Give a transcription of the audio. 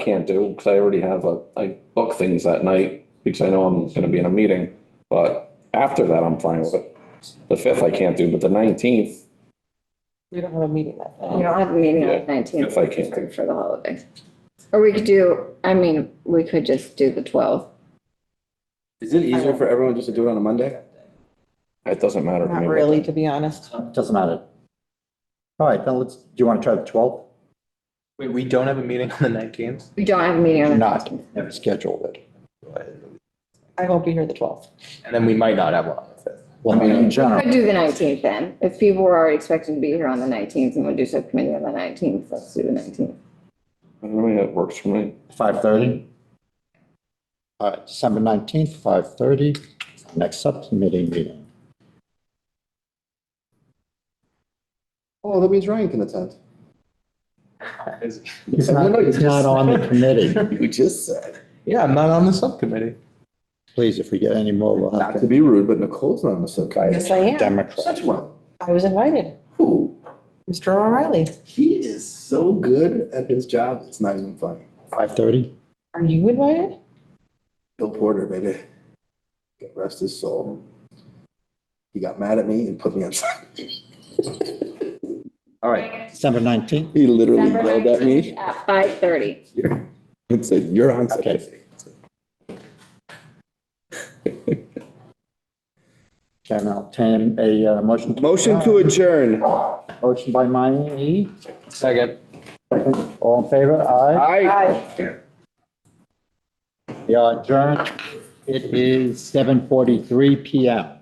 can't do, because I already have a, I book things that night, because I know I'm gonna be in a meeting, but after that, I'm fine with it. The fifth I can't do, but the nineteenth, um, We don't have a meeting that day. We don't have a meeting on the nineteenth if I can't. for the holiday. Or we could do, I mean, we could just do the twelfth. Is it easier for everyone just to do it on a Monday? It doesn't matter to me. Not what really, day. to be honest. Doesn't matter. All right, then let's, do you want to try the 12th? Wait, we don't have a meeting on the nineteenth? We don't have a meeting on the Not, nineteenth. never scheduled it. I won't be here the twelfth. And then we might not have one on the fifth. Well, I mean, in We Could general, do the nineteenth then. If people were already expecting to be here on the nineteenth and we'll do subcommittee on the nineteenth, let's do the nineteenth. I mean, it works for me. 5:30? All right, December 19th, 5:30, next subcommittee meeting. Oh, that means Ryan can attend. He's not, he's not on the committee. You just said. Yeah, I'm not on the subcommittee. Please, if we get any more, we'll Not have to to. be rude, but Nicole's not on the subcommittee. Yes, I am. Democrat. one. I was invited. Who? Mr. O'Reilly, He is so good at his job, it's not even funny. 5:30? are you invited? Bill Porter, baby. God Rest his soul. He got mad at me and put me on. All right, December 19th? He literally yelled at me At five thirty. and said, you're on Okay. subcommittee. Can I obtain a uh, motion? Motion to adjourn. Motion by Mayne, Second. second, all in favor? Aye. Aye. We are adjourned. It is 7:43 PM.